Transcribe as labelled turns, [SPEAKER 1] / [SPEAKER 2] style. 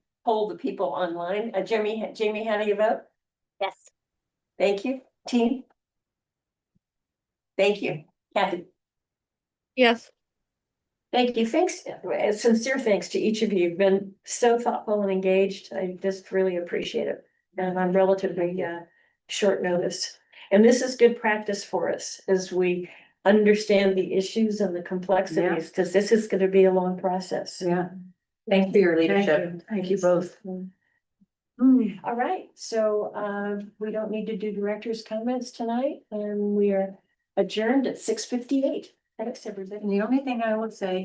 [SPEAKER 1] poll the people online. Uh, Jimmy, Jamie, how do you vote?
[SPEAKER 2] Yes.
[SPEAKER 1] Thank you, team. Thank you, Kathy.
[SPEAKER 3] Yes.
[SPEAKER 1] Thank you. Thanks, uh, sincere thanks to each of you. You've been so thoughtful and engaged. I just really appreciate it. And on relatively uh short notice. And this is good practice for us as we understand the issues and the complexities, because this is gonna be a long process.
[SPEAKER 4] Yeah. Thank Mm, you for your leadership. Thank you both.
[SPEAKER 1] All right, so uh, we don't need to do director's comments tonight, and we are adjourned at six fifty-eight. Thanks, everybody.
[SPEAKER 4] And the only thing I would say